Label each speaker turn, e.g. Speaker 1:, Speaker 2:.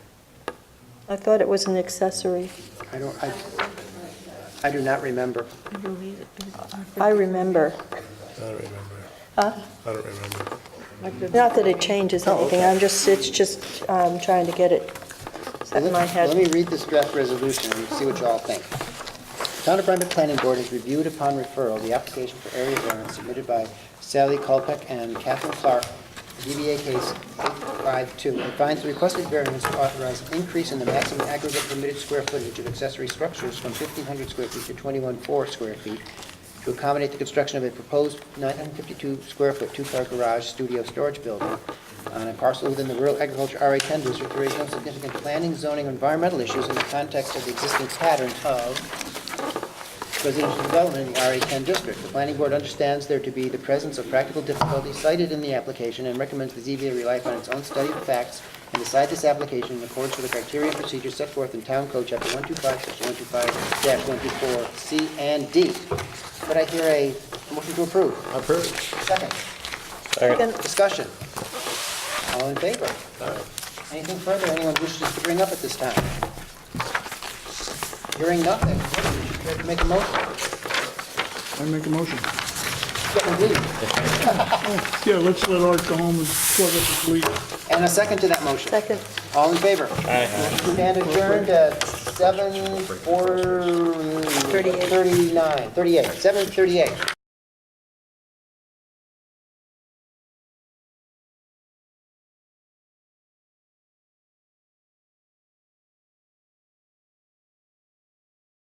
Speaker 1: I thought it was an accessory.
Speaker 2: I don't, I, I do not remember.
Speaker 1: I remember.
Speaker 3: I don't remember.
Speaker 1: Huh?
Speaker 3: I don't remember.
Speaker 1: Not that it changes
Speaker 2: Oh,
Speaker 1: anything,
Speaker 2: okay.
Speaker 1: I'm just, it's just, um trying to get it set in my
Speaker 2: Let
Speaker 1: head.
Speaker 2: me read this draft resolution and see what you all think. Town of Rhinebeck Planning Board has reviewed upon referral the application for area variance submitted by Sally Culpec and Catherine Clark, DBA case 852, and finds the requested variance to authorize an increase in the maximum aggregate permitted square footage of accessory structures from 1,500 square feet to 21,400 square feet to accommodate the construction of a proposed 952-square-foot two-car garage studio storage building on a parcel within the rural agriculture RA-10 district to raise no significant planning, zoning, or environmental issues in the context of the existing pattern of residential development in the RA-10 district. The planning board understands there to be the presence of practical difficulties cited in the application and recommends the ZBA rely upon its own study of facts and decide this application in accordance with the criteria and procedures set forth in Town Code Chapter 125, Section 125-124C and D. Could I hear a motion to approve?
Speaker 3: Approved.
Speaker 2: Second.
Speaker 1: Second.
Speaker 2: Discussion. All in favor? Anything further anyone wishes to bring up at this time? Hearing nothing. Care to Make a motion.
Speaker 4: I make a motion.
Speaker 2: Yeah, indeed.
Speaker 4: Yeah, let's let Art go home and plug up his leak.
Speaker 2: And a second to that motion.
Speaker 1: Second,
Speaker 2: All in favor? Stand adjourned at 7:4...
Speaker 1: 38.
Speaker 2: 39, 38, 7:38.